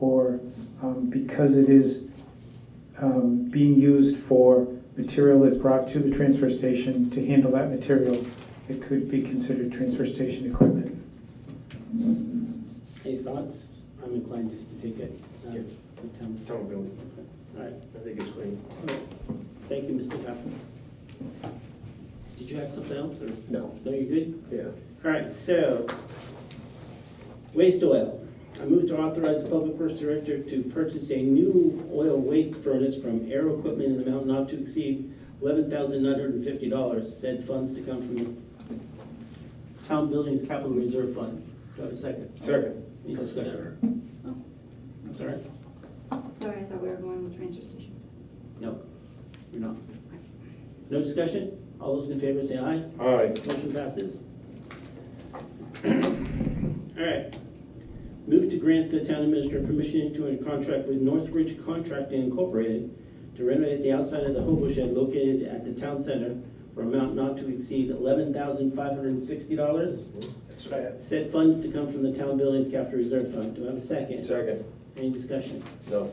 or um, because it is um, being used for material that's brought to the transfer station to handle that material, it could be considered transfer station equipment. Any thoughts? I'm inclined just to take it. uh, Yeah. the town. Town building, All right, I think it's clean. all right. Thank you, Mr. Pepper. Did you have something else, or, No, no, you're good? yeah. All right, so, waste oil. I move to authorize the public works director to purchase a new oil waste furnace from Aero Equipment in the amount not to exceed eleven thousand nine hundred and fifty dollars. Said funds to come from the town buildings capital reserve fund. Do I have a second? Second. Any discussion? I'm sorry? Sorry, I thought we were going with transfer station. No, you're not. No discussion? All those in favor say aye. Aye. Motion passes. All right. Move to grant the town administrator permission to enter contract with Northridge Contracting Incorporated to renovate the outside of the hobo shed located at the town center for amount not to exceed eleven thousand five hundred and sixty dollars. That's what I had. Said funds to come from the town buildings capital reserve fund. Do I have a second? Second. Any discussion? No.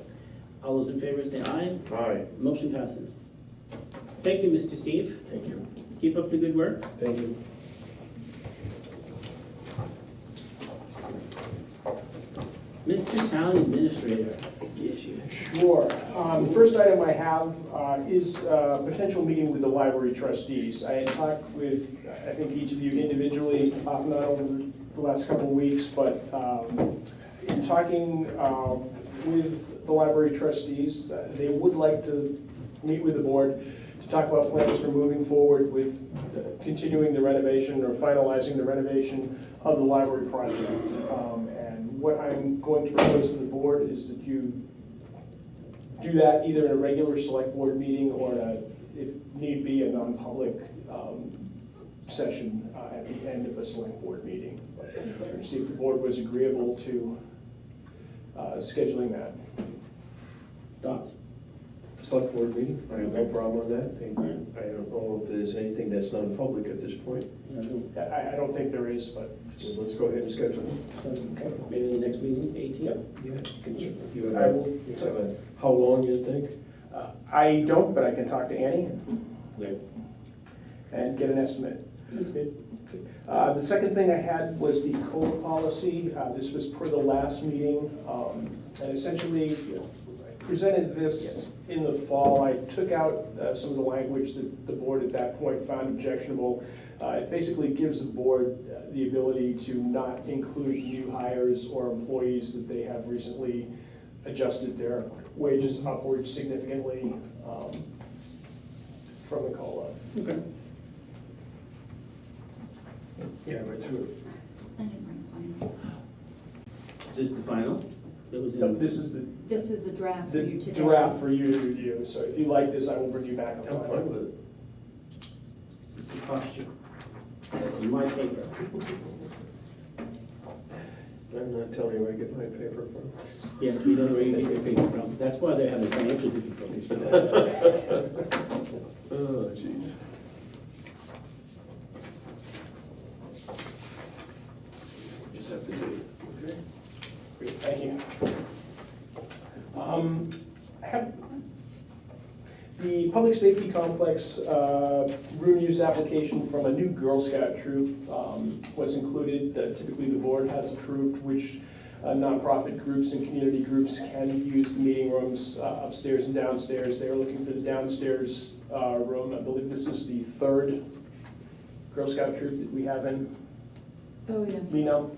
All those in favor say aye. Aye. Motion passes. Thank you, Mr. Steve. Thank you. Keep up the good work. Thank you. Mr. Town Administrator. Yes, you. Sure. Um, The first item I have uh, is uh, potential meeting with the library trustees. I had talked with, I think, each of you individually, uh, not over the last couple of weeks, but um, in talking um, with the library trustees, uh, they would like to meet with the board to talk about plans for moving forward with uh, continuing the renovation or finalizing the renovation of the library project. Um, And what I'm going to propose to the board is that you do that either in a regular select board meeting or in a, if need be, a non-public um, session uh, at the end of a select board meeting. But See if the board was agreeable to uh, scheduling that. Thoughts? Select board meeting, I have no problem on that. I I don't know if there's anything that's non-public at this point. Yeah, Uh, no. I- I, I don't think there is, but So let's go ahead and schedule it. Maybe the next meeting, eighteen? You have a- you have a- How long you think? uh, I don't, but I can talk to Annie Yeah. and get an estimate. That's good. Uh, The second thing I had was the COLA policy. Uh, This was per the last meeting. um, And essentially, I presented this in the fall. I took out uh, some of the language that the board at that point found objectionable. Uh, It basically gives the board uh, the ability to not include new hires or employees that they have recently adjusted their wages upward significantly um, from the COLA. Okay. Yeah, right through. I didn't bring a final. Is this the final? That was So in, This is the This is a draft for the you today. draft for you to review, so if you like this, I will bring you back a I'm fine file. with it. this is posture. This is my paper. I'm not telling you where I get my paper from. Yes, we know where you get your paper from. That's why they're having financial difficulties. Oh, jeez. Just have to do it. Great, Thank you. Um, I have, the public safety complex, uh, room use application from a new Girl Scout troop, um, was included, that typically the board has approved, which uh, nonprofit groups and community groups can use the meeting rooms uh, upstairs and downstairs. They're looking for the downstairs, uh, room, I believe this is the third Girl Scout troop that we have in Oh, yeah. Lino.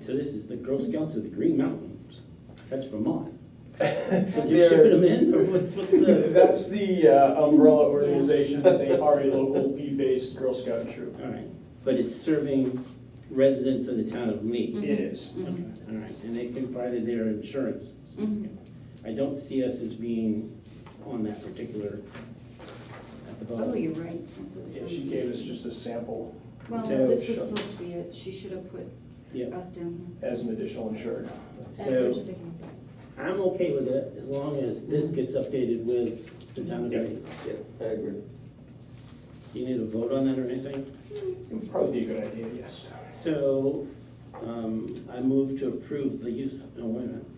So this is the Girl Scouts of the Green Mountains. That's Vermont. So you're They're- shipping them in, or what's, what's the? That's the uh, umbrella organization, that they are a local bee-based Girl Scout troop. All right, but it's serving residents of the town of Lee. It is. Okay, Mhm. all right, and they provided their insurance. Mhm. I don't see us as being on that particular, at the Oh, bottom. you're right. This is Yeah, from- She gave us just a sample Well, So- this was supposed to be it. She should have put Yeah, us down as an additional insured. here. As so certificate. I'm okay with it, as long as this gets updated with the town of Dayton. Yeah, I agree. Do you need a vote on that or anything? It would probably be a good idea, yes. So, um, I move to approve the use, oh, wait a minute.